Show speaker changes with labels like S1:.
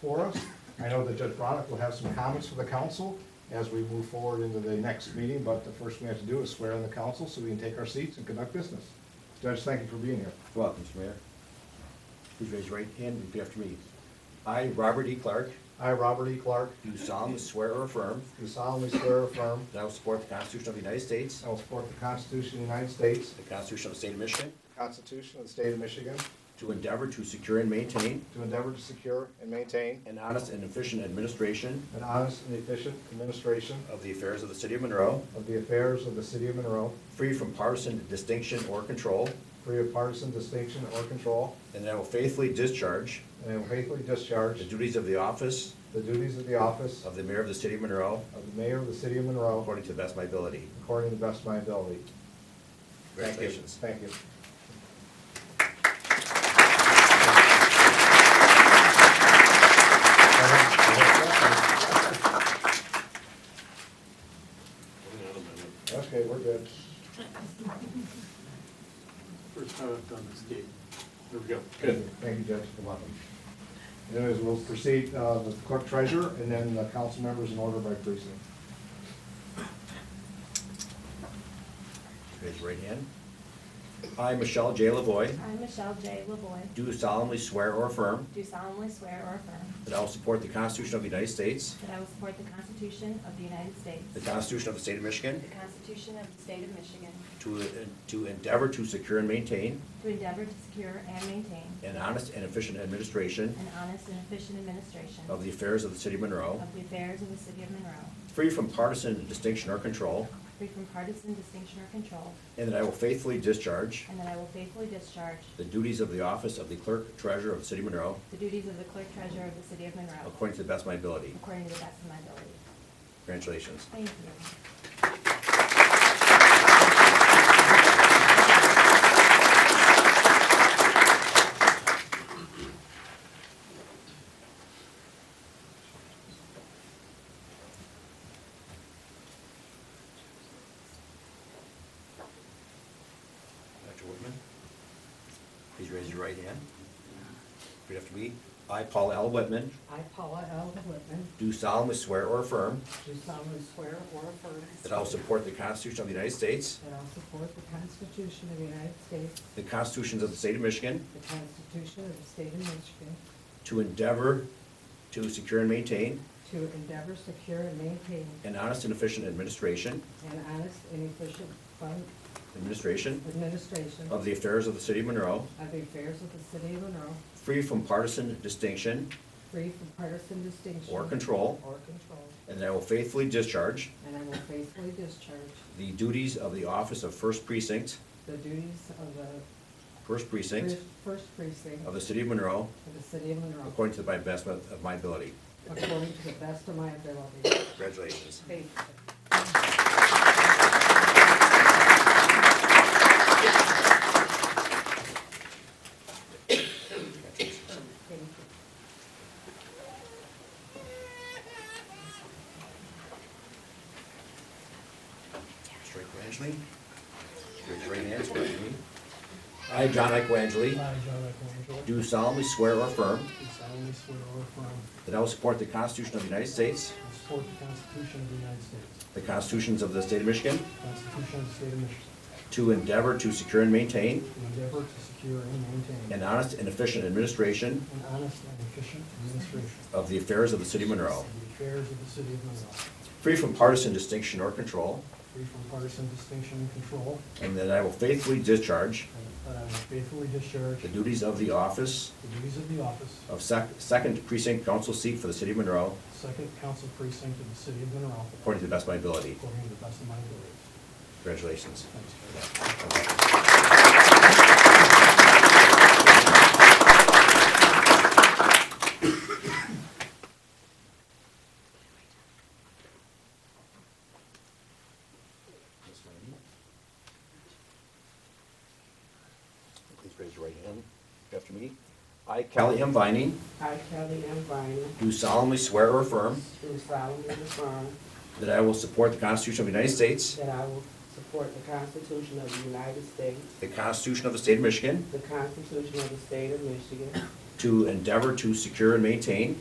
S1: for us. I know that Judge Bronick will have some comments for the council as we move forward into the next meeting, but the first thing we have to do is swear in the council so we can take our seats and conduct business. Judge, thank you for being here.
S2: Welcome, Mr. Mayor. Please raise your right hand and repeat after me. I, Robert E. Clark,
S1: I, Robert E. Clark,
S2: do solemnly swear or affirm
S1: do solemnly swear or affirm
S2: that I will support the Constitution of the United States,
S1: I will support the Constitution of the United States,
S2: the Constitution of the State of Michigan,
S1: the Constitution of the State of Michigan,
S2: to endeavor to secure and maintain
S1: to endeavor to secure and maintain
S2: an honest and efficient administration
S1: an honest and efficient administration
S2: of the affairs of the city of Monroe,
S1: of the affairs of the city of Monroe,
S2: free from partisan distinction or control,
S1: free of partisan distinction or control,
S2: and that I will faithfully discharge
S1: and I will faithfully
S2: the
S1: discharge
S2: duties of the office
S1: the duties of the office
S2: of the mayor of the city of Monroe
S1: of the mayor of the city of Monroe
S2: according to the best of my ability.
S1: according to the best of my ability. Thank you.
S2: Congratulations.
S1: Thank you. Okay, we're good.
S3: First time I've done this gate. There we go.
S1: Thank you, Judge. Good luck. Anyways, we'll proceed uh, with clerk treasurer and then the council members in order by precinct.
S2: Raise your right hand. I, Michelle J. Lavoy,
S4: I, Michelle J. Lavoy,
S2: do solemnly swear or affirm
S4: do solemnly swear or affirm
S2: that I will support the Constitution of the United States,
S4: that I will support the Constitution of the United States,
S2: the Constitution of the State of Michigan,
S4: the Constitution of the State of Michigan,
S2: to to endeavor to secure and maintain
S4: to endeavor to secure and maintain
S2: an honest and efficient administration
S4: an honest and efficient administration
S2: of the affairs of the city of Monroe,
S4: of the affairs of the city of Monroe,
S2: free from partisan distinction or control,
S4: free from partisan distinction or control,
S2: and that I will faithfully discharge
S4: and that I will faithfully discharge
S2: the duties of the office of the clerk treasurer of the city of Monroe
S4: the duties of the clerk treasurer of the city of Monroe,
S2: according to the best of my ability.
S4: according to the best of my ability.
S2: Congratulations.
S4: Thank you.
S2: Dr. Whitman, please raise your right hand. Repeat after me. I, Paula L. Whitman,
S5: I, Paula L. Whitman,
S2: do solemnly swear or affirm
S5: do solemnly swear or affirm
S2: that I will support the Constitution of the United States,
S5: that I will support the Constitution of the United States,
S2: the constitutions of the state of Michigan,
S5: the Constitution of the State of Michigan,
S2: to endeavor to secure and maintain
S5: to endeavor, secure, and maintain
S2: an honest and efficient administration,
S5: an honest and efficient fund
S2: administration
S5: administration
S2: of the affairs of the city of Monroe,
S5: of the affairs of the city of Monroe,
S2: free from partisan distinction
S5: free from partisan distinction.
S2: Or control.
S5: Or control,
S2: And that I will faithfully discharge
S5: and I will faithfully discharge
S2: the duties of the office of First Precinct,
S5: the duties of the
S2: First Precinct
S5: first- First Precinct
S2: of the City of Monroe,
S5: of the city of Monroe,
S2: according to the best of my ability.
S5: according to the best of my ability.
S2: Congratulations.
S5: Thank you. Thank you.
S2: Strike Wangely. Raise your right hand, swear to me. I, John Ike Wangely,
S6: I, John Eckelangelo, do
S2: do solemnly swear or affirm
S6: solemnly swear or affirm
S2: that I will support the Constitution of the United States,
S6: I will support the Constitution of the United States,
S2: the constitutions of the State of Michigan,
S6: the Constitution of the State of Michigan,
S2: to endeavor to secure and maintain
S6: and endeavor to secure and maintain
S2: an honest and efficient administration
S6: an honest and efficient administration
S2: of the affairs of the City of Monroe,
S6: of the affairs of the city of Monroe,
S2: free from partisan distinction or control,
S6: free from partisan distinction and control,
S2: and that I will faithfully discharge
S6: and that I will faithfully discharge
S2: the duties of the office
S6: the duties of the office of
S2: of sec- Second Precinct Council seat for the City of Monroe
S6: Second Council Precinct of the city of Monroe,
S2: according to the best of my ability.
S6: according to the best of my ability.
S2: Congratulations.
S6: Thanks, Judge.
S2: Please raise your right hand after me. I, Kelly M. Vining,
S5: I, Kelly M. Vining,
S2: do solemnly swear or affirm
S5: do solemnly affirm
S2: that I will support the Constitution of the United States,
S5: that I will support the Constitution of the United States,
S2: the Constitution of the State of Michigan,
S5: the Constitution of the State of Michigan,
S2: to endeavor to secure and maintain